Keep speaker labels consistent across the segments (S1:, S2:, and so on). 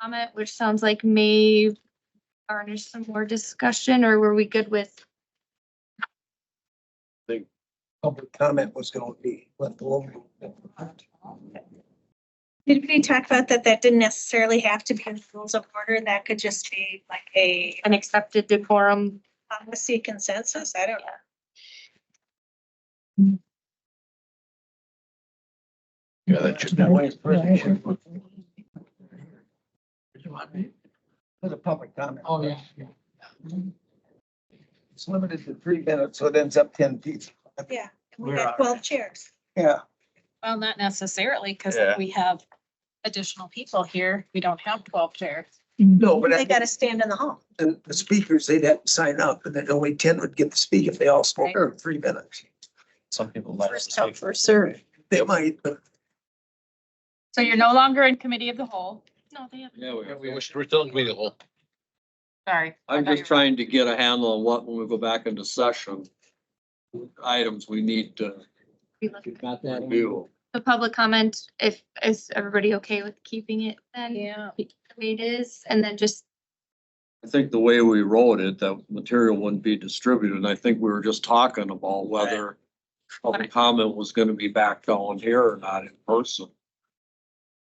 S1: comment, which sounds like may garnish some more discussion, or were we good with?
S2: Public comment was gonna be left over.
S3: Did we talk about that? That didn't necessarily have to be in rules of order. That could just be like a
S1: an accepted decorum.
S3: policy consensus. I don't know.
S4: Yeah, that should
S2: That
S4: never.
S2: way it's pretty short. For the public comment.
S5: Oh, yeah, yeah.
S2: It's limited to three minutes, so it ends up ten feet.
S3: Yeah. We
S2: We're
S3: got
S2: alright.
S3: twelve chairs.
S2: Yeah,
S5: Well, not necessarily, because
S4: Yeah.
S5: we have additional people here. We don't have twelve chairs.
S2: no, but
S3: They
S2: I-
S3: gotta stand in the hall.
S2: the, the speakers, they'd have to sign up and then only ten would get to speak if they all spoke for three minutes.
S4: Some people like.
S5: First come, first served.
S2: They might, but
S5: So you're no longer in committee of the whole.
S1: No, they have.
S6: Yeah,
S4: Yeah,
S6: we-
S4: we
S6: we-
S4: were still in committee of the whole.
S5: Sorry.
S6: I'm just trying to get a handle on what, when we go back into session, what items we need to review.
S1: The public comment, if, is everybody okay with keeping it then?
S5: Yeah.
S1: The way it is, and then just,
S6: I think the way we wrote it, that material wouldn't be distributed, and I think we were just talking about whether public comment was gonna be back on here or not in person.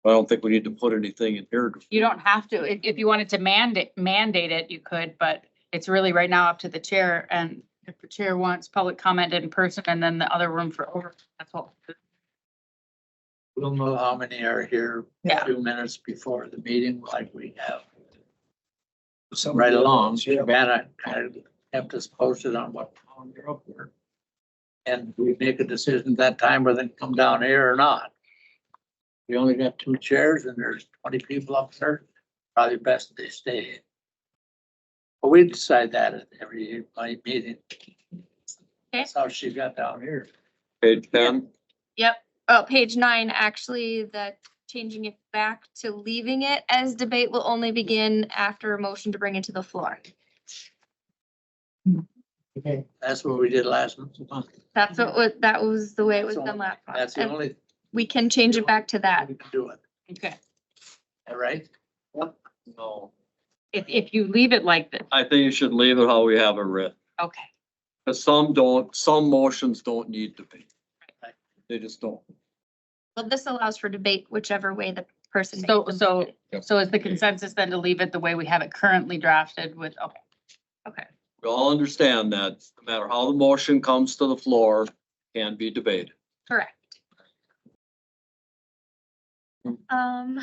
S6: I don't think we need to put anything in here.
S7: You don't have to. If, if you wanted to mandate, mandate it, you could, but it's really right now up to the chair. And if the chair wants public comment in person and then the other room for over, that's all.
S8: We'll know how many are here a
S7: Yeah.
S8: few minutes before the meeting, like we have
S2: some.
S8: right along.
S2: Yeah.
S8: Savannah kind of kept us posted on what town you're up for. And we make a decision at that time whether to come down here or not. We only got two chairs and there's twenty people up there, probably best they stay. But we decide that at every my meeting. That's how she got down here.
S6: Page ten,
S1: oh, page nine, actually, the changing it back to leaving it as debate will only begin after a motion to bring it to the floor.
S8: That's what we did last month.
S1: That's what, wa- that was the way it was done last
S8: Mhm. That's
S1: month.
S8: the
S1: And
S8: only
S1: we can change it back to
S8: thing
S1: that.
S8: we can do it,
S7: Okay.
S8: all right?
S6: no,
S7: If, if you leave it like this,
S6: I think you should leave it how we have it written.
S7: okay.
S6: Cause some don't, some motions don't need to be.
S8: Right.
S6: They just don't.
S1: Well, this allows for debate whichever way the person. makes
S7: So,
S1: the
S7: so,
S1: motion.
S4: Yep.
S7: so is the consensus then to leave it the way we have it currently drafted with, okay.
S6: We all understand that no matter how the motion comes to the floor, can be debated.
S1: Correct. Um,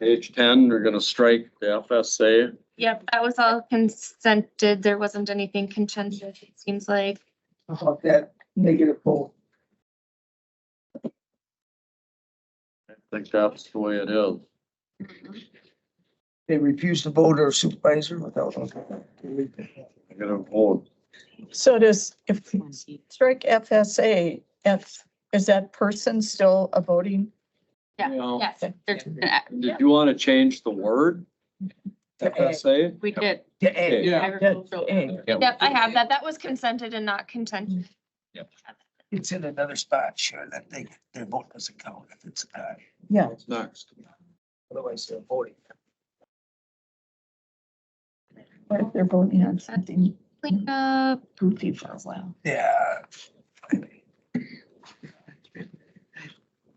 S6: Page ten, we're gonna strike the FSA.
S1: yep, that was all consented. There wasn't anything contentious, it seems like.
S2: About that negative vote.
S6: I think that's the way it is.
S2: They refused to vote or supervisor without.
S6: I gotta vote.
S9: So does, if
S7: Hmm.
S9: we strike FSA, F, is that person still a voting?
S7: Yeah,
S6: You know,
S1: Yes,
S7: There's-
S6: Did you wanna change the word FSA?
S7: We did.
S9: To
S6: A.
S9: A.
S7: Agricultural
S9: A.
S1: yep, I have that. That was consented and not contentious.
S2: It's in another spot, sure, that they, their vote doesn't count if it's a tie.
S9: Yeah.
S6: What's next?
S2: Otherwise, they're voting.
S9: But if they're voting on something
S1: Clean up.
S9: goofy for a while.
S2: Yeah.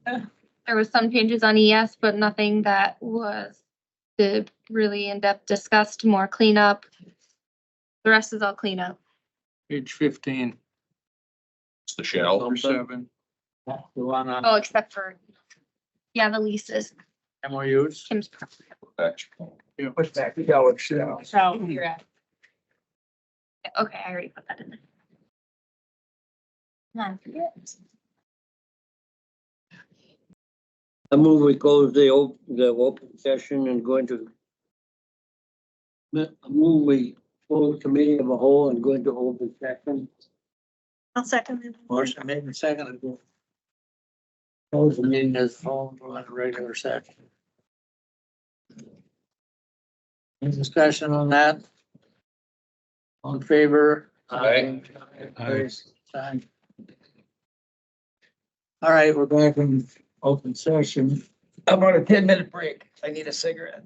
S1: There was some changes on ES, but nothing that was the really in-depth discussed, more cleanup. The rest is all cleanup.
S8: Page fifteen,
S4: It's the shell.
S8: seven. The one on
S1: Oh, except for, yeah, the leases,
S8: MOUs.
S1: Kim's.
S2: Push back the dollar shell.
S7: So you're at
S1: Okay, I already put that in there.
S10: I move we close the op, the open session and go into I move we close committee of a whole and go into open session,
S3: I'll second that.
S8: Motion made and seconded. Close the meeting as home for a regular session. Any discussion on that? On favor?
S4: Aye.
S8: Aye. Aye. All right, we're back in open session.
S2: I'm on a ten minute break. I need a cigarette.